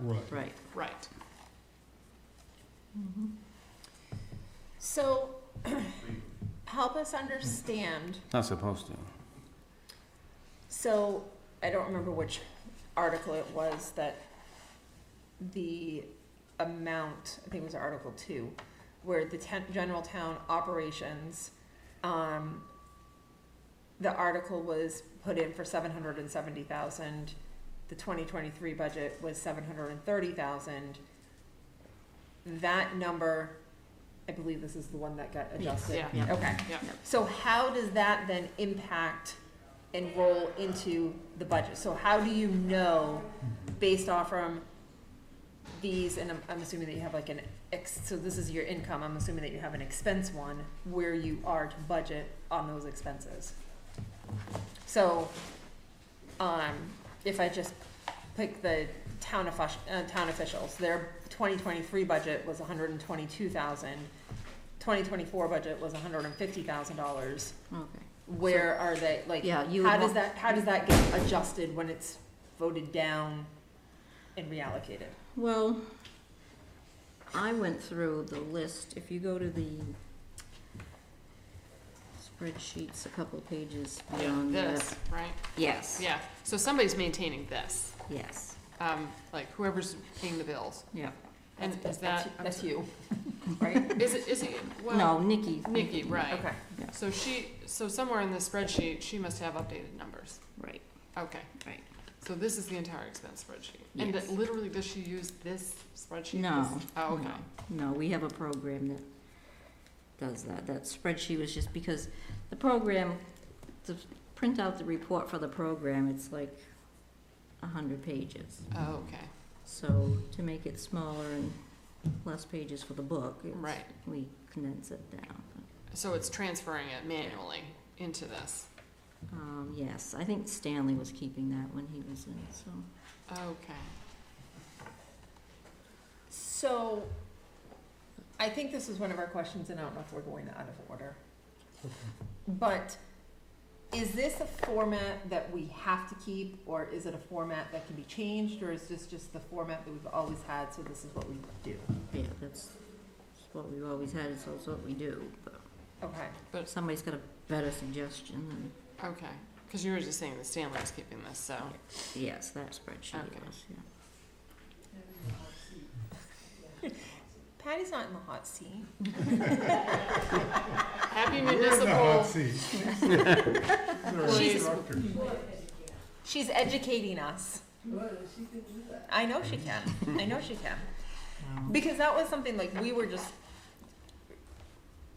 Right. Right. Right. Mm-hmm. So, help us understand, Not supposed to. so, I don't remember which article it was that the amount, I think it was Article Two, where the ten, general town operations, um, the article was put in for seven hundred and seventy thousand, the twenty twenty-three budget was seven hundred and thirty thousand. That number, I believe this is the one that got adjusted. Yeah. Yeah. Okay. Yeah. So how does that then impact and roll into the budget? So how do you know, based off from these, and I'm, I'm assuming that you have like an ex, so this is your income, I'm assuming that you have an expense one, where you are to budget on those expenses. So, um, if I just pick the town offic- uh, town officials, their twenty twenty-three budget was 122,000. hundred and twenty-two thousand. Twenty twenty-four budget was hundred and fifty thousand dollars. Okay. Where are they, like, Yeah, you how would does want- that, how does that get adjusted when it's voted down and reallocated? Well, I went through the list, if you go to the spreadsheets, a couple pages Yeah, beyond that. this, right? Yes, Yeah, so somebody's maintaining this, yes, um, like whoever's paying the bills. yeah. And That's- is that, That's that's you, right? is it, is it, No, well, Nikki. Nikki, right. Okay. Yeah. So she, so somewhere in the spreadsheet, she must have updated numbers. Right, Okay, right. so this is the entire expense spreadsheet. And Yes. literally, does she use this spreadsheet? No, This- Oh, okay. No, we have a program that does that. That spreadsheet was just because the program, to print out the report for the program, it's like a hundred pages. Oh, okay, So to make it smaller and less pages for the book, it's- right. we condense it down. So it's transferring it manually into this. Um, yes, I think Stanley was keeping that when he was in, so. Okay. So, I think this is one of our questions, and I don't know if we're going out of order. But is this a format that we have to keep, or is it a format that can be changed, or is this just the format that we've always had, so this is what we do? Yeah, that's that's what we've always had, so it's what we do, but Okay, if somebody's got a better suggestion, then Okay, because you were just saying that Stanley was keeping this, so, yes, that spreadsheet Okay. was, yeah. Patty's not in the hot seat. happy We're in the hot municipal, seat. She's- She's educating us. I know she can. I know she can. Because that was something like we were just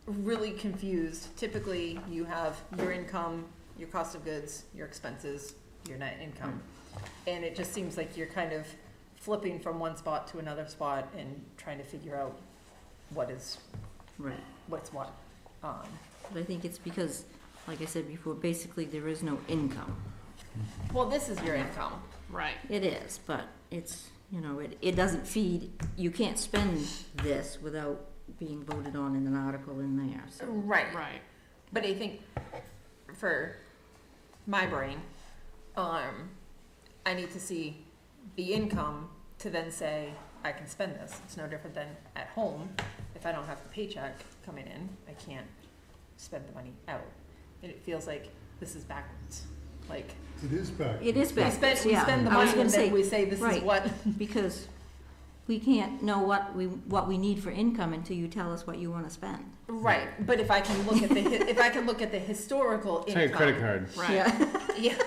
really confused. Typically, you have your income, your cost of goods, your expenses, your net income. And it just seems like you're kind of flipping from one spot to another spot and trying to figure out what is, Right, what's what. Um, but I think it's because, like I said before, basically there is no income. well, this is your income. right. It is, but it's, you know, it, it doesn't feed, you can't spend this without being voted on in an article in there, so. Right. Right, But I think for my brain, um, I need to see the income to then say, I can spend this. It's no different than at home. If I don't have the paycheck coming in, I can't spend the money out. And it feels like this is backwards. Like, It is back. It is we backwards, yeah. spend, we spend the I was money gonna and say, then we say, this is right. what, Because we can't know what we, what we need for income until you tell us what you wanna spend. right. But if I can look at the, hi- if I can look at the historical income. Take a credit card. right, Yeah, Yeah.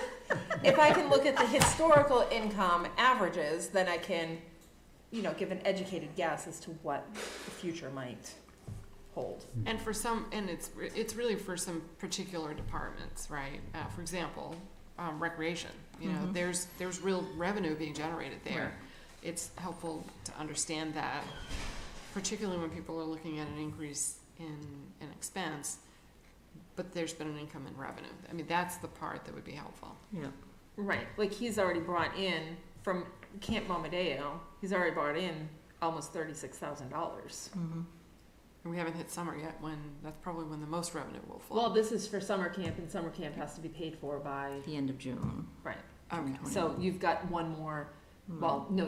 If I can look at the historical income averages, then I can, you know, give an educated guess as to what the future might hold. and for some, and it's, re- it's really for some particular departments, right? Uh, for example, um, recreation, you know, Mhm. there's, there's real revenue being generated Right. there. It's helpful to understand that, particularly when people are looking at an increase in, in expense, but there's been an income in revenue. I mean, that's the part that would be helpful. yeah, Right. Like he's already brought in from Camp Momadeo, he's already brought in almost thirty-six thousand dollars. mhm, And we haven't hit summer yet, when, that's probably when the most revenue will Well, flow. this is for summer camp and summer camp has to be paid for by, the end of June. right. Okay. So you've got one more, well, no,